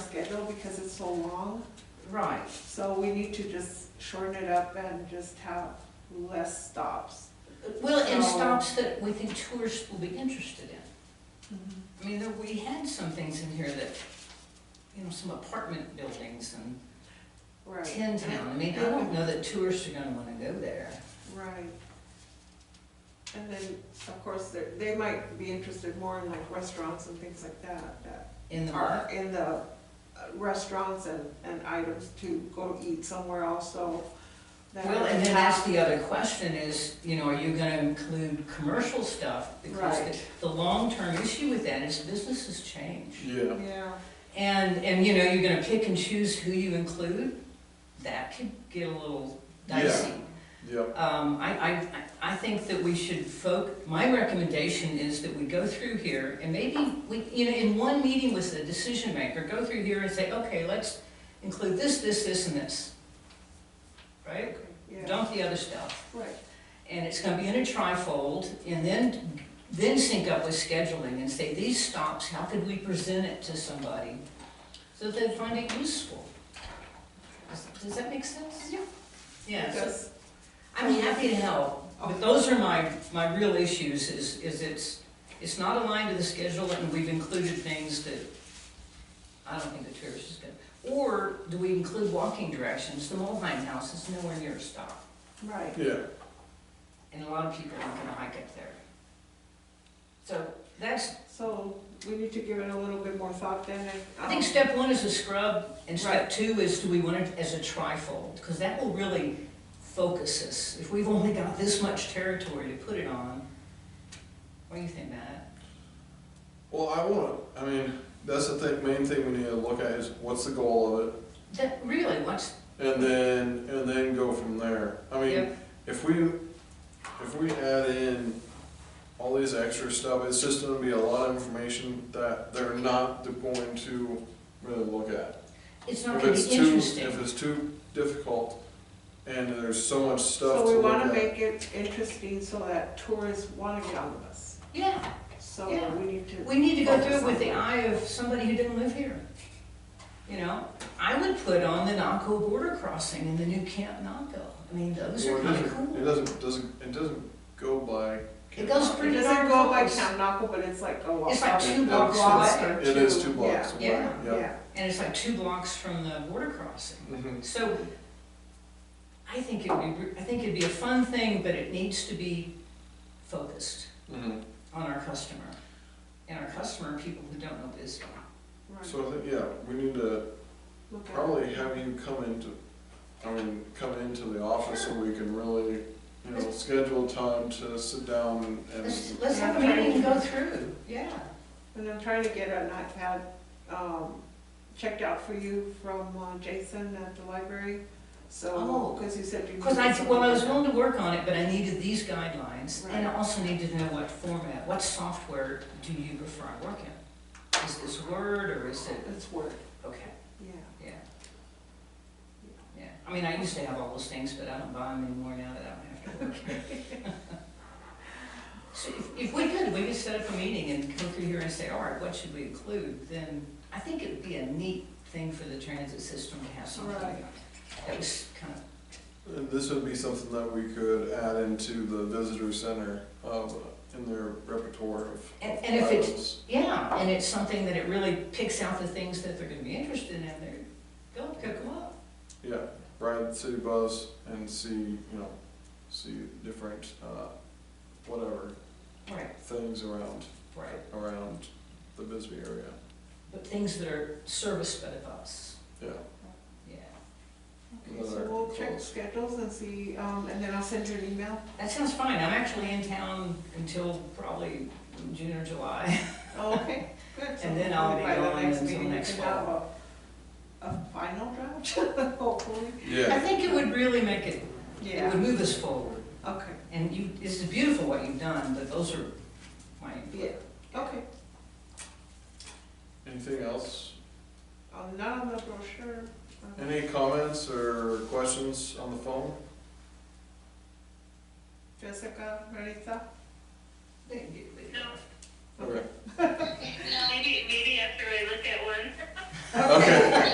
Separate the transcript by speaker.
Speaker 1: know because it's so long,
Speaker 2: Right,
Speaker 1: so we need to just shorten it up and just have less stops.
Speaker 2: well, and
Speaker 1: So-
Speaker 2: stops that we think tourists will be interested in. I mean, there, we had some things in here that, you know, some apartment buildings and
Speaker 1: Right,
Speaker 2: Tin Town, I mean, I don't know that tourists are gonna wanna go there.
Speaker 1: right. And then, of course, they're- they might be interested more in like restaurants and things like that, that
Speaker 2: In the
Speaker 1: are
Speaker 2: park,
Speaker 1: in the uh, restaurants and, and items to go eat somewhere else, so. that
Speaker 2: well, and then
Speaker 1: have-
Speaker 2: that's the other question is, you know, are you gonna include commercial stuff? Because the,
Speaker 1: Right.
Speaker 2: the long-term issue with that is businesses change.
Speaker 3: Yeah,
Speaker 1: Yeah,
Speaker 2: And, and you know, you're gonna pick and choose who you include, that could get a little
Speaker 3: Yeah.
Speaker 2: dicey.
Speaker 3: yeah,
Speaker 2: Um, I, I, I- I think that we should folk, my recommendation is that we go through here and maybe we, you know, in one meeting with the decision maker, go through here and say, okay, let's include this, this, this, and this. Right?
Speaker 1: yeah,
Speaker 2: Dump the other stuff.
Speaker 1: right,
Speaker 2: And it's gonna be in a trifold and then, then sync up with scheduling and say, these stops, how could we present it to somebody? So that they find it useful. Does- Does that make sense?
Speaker 1: Yeah.
Speaker 2: Yeah, so-
Speaker 1: because, oh,
Speaker 2: I'm happy to help, but those are my, my real issues, is, is it's, it's not aligned to the schedule, and we've included things that I don't think the tourist is gonna, or do we include walking directions, the Mulheim House is nowhere near a stop,
Speaker 1: right,
Speaker 3: yeah.
Speaker 2: and a lot of people aren't gonna hike up there. So, that's,
Speaker 1: so we need to give it a little bit more thought then and.
Speaker 2: I think
Speaker 1: um,
Speaker 2: step one is a scrub, and step
Speaker 1: Right.
Speaker 2: two is do we want it as a trifold? Because that will really focus us. If we've only got this much territory to put it on, what do you think, Matt?
Speaker 3: Well, I want, I mean, that's the thing, main thing we need to look at is what's the goal of it?
Speaker 2: That, really, what's,
Speaker 3: And then, and then go from there. I mean,
Speaker 2: Yep.
Speaker 3: if we, if we add in all these extra stuff, it's just gonna be a lot of information that they're not going to really look at.
Speaker 2: it's not
Speaker 3: If
Speaker 2: gonna
Speaker 3: it's
Speaker 2: be
Speaker 3: too, if
Speaker 2: interesting.
Speaker 3: it's too difficult and there's so much stuff
Speaker 1: So
Speaker 3: to
Speaker 1: we
Speaker 3: look
Speaker 1: wanna
Speaker 3: at.
Speaker 1: make it interesting so that tourists wanna get on the bus,
Speaker 2: Yeah,
Speaker 1: so
Speaker 2: Yeah.
Speaker 1: we need to.
Speaker 2: we need to go through it
Speaker 1: focus on
Speaker 2: with the
Speaker 1: that.
Speaker 2: eye of somebody who didn't live here. You know, I would put on the Naco border crossing and the new Camp Naco. I mean, those
Speaker 3: Well,
Speaker 2: are
Speaker 3: it
Speaker 2: kinda
Speaker 3: doesn't- It
Speaker 2: cool.
Speaker 3: doesn't, doesn't, it doesn't go by.
Speaker 2: It goes
Speaker 1: It
Speaker 2: pretty darn
Speaker 1: doesn't go by
Speaker 2: close.
Speaker 1: Town Naco, but it's like a walk.
Speaker 2: It's like two
Speaker 3: It-
Speaker 2: blocks
Speaker 3: it's-
Speaker 2: away.
Speaker 3: It is two blocks away,
Speaker 2: Yeah,
Speaker 3: yeah.
Speaker 1: Yeah,
Speaker 2: And it's like two blocks from the border crossing.
Speaker 3: Mhm.
Speaker 2: So I think it would be, I think it'd be a fun thing, but it needs to be focused
Speaker 3: Mhm.
Speaker 2: on our customer. And our customer, are people who don't know Bisbee.
Speaker 1: right,
Speaker 3: So I think, yeah, we need to
Speaker 1: look at it.
Speaker 3: probably have you come into, I mean, come into the office so we can really, you know, schedule time to sit down
Speaker 2: Let's,
Speaker 3: and,
Speaker 2: let's have a meeting and go through, yeah.
Speaker 1: And I'm trying to get an iPad, um, checked out for you from uh, Jason at the library, so,
Speaker 2: Oh.
Speaker 1: cause he said you.
Speaker 2: Because I,
Speaker 1: needed
Speaker 2: well, I was
Speaker 1: something.
Speaker 2: willing to work on it, but I needed these guidelines. And I
Speaker 1: Right.
Speaker 2: also needed to know what format, what software do you prefer I work in? Is this Word or is it,
Speaker 1: It's work,
Speaker 2: okay.
Speaker 1: yeah.
Speaker 2: Yeah. Yeah, I mean, I used to have all those things, but I don't buy them anymore now that I don't have to work. So if, if we could, we could set up a meeting and go through here and say, all right, what should we include? Then I think it would be a neat thing for the transit system to have something
Speaker 1: Right.
Speaker 2: that was kind of,
Speaker 3: and this would be something that we could add into the visitor center, um, in their repertoire of
Speaker 2: and, and if it's,
Speaker 3: items.
Speaker 2: yeah, and it's something that it really picks out the things that they're gonna be interested in, and they're, go, go, go up.
Speaker 3: Yeah, ride the city bus and see, you know, see different, uh, whatever,
Speaker 2: Right,
Speaker 3: things around,
Speaker 2: right.
Speaker 3: around the Bisbee area,
Speaker 2: But things that are serviced by the bus,
Speaker 3: yeah.
Speaker 2: yeah.
Speaker 1: Okay, so we'll check schedules and see, um, and then I'll send you an email.
Speaker 2: That sounds fine. I'm actually in town until probably June or July.
Speaker 1: Oh, okay, good. So
Speaker 2: And then I'll be
Speaker 1: by the
Speaker 2: gone until
Speaker 1: meeting, we
Speaker 2: next
Speaker 1: can have a- A final draft, hopefully.
Speaker 2: I
Speaker 3: Yeah,
Speaker 2: think it would really make it, it would
Speaker 1: Yeah,
Speaker 2: move us forward.
Speaker 1: okay,
Speaker 2: And you, it's beautiful what you've done, but those are my
Speaker 1: yeah,
Speaker 2: input.
Speaker 1: okay.
Speaker 3: anything else?
Speaker 1: I'm not on the brochure. um,
Speaker 3: Any comments or questions on the phone?
Speaker 1: Jessica, Marita?
Speaker 3: Okay.
Speaker 4: Maybe, maybe after I look at one.
Speaker 3: Okay.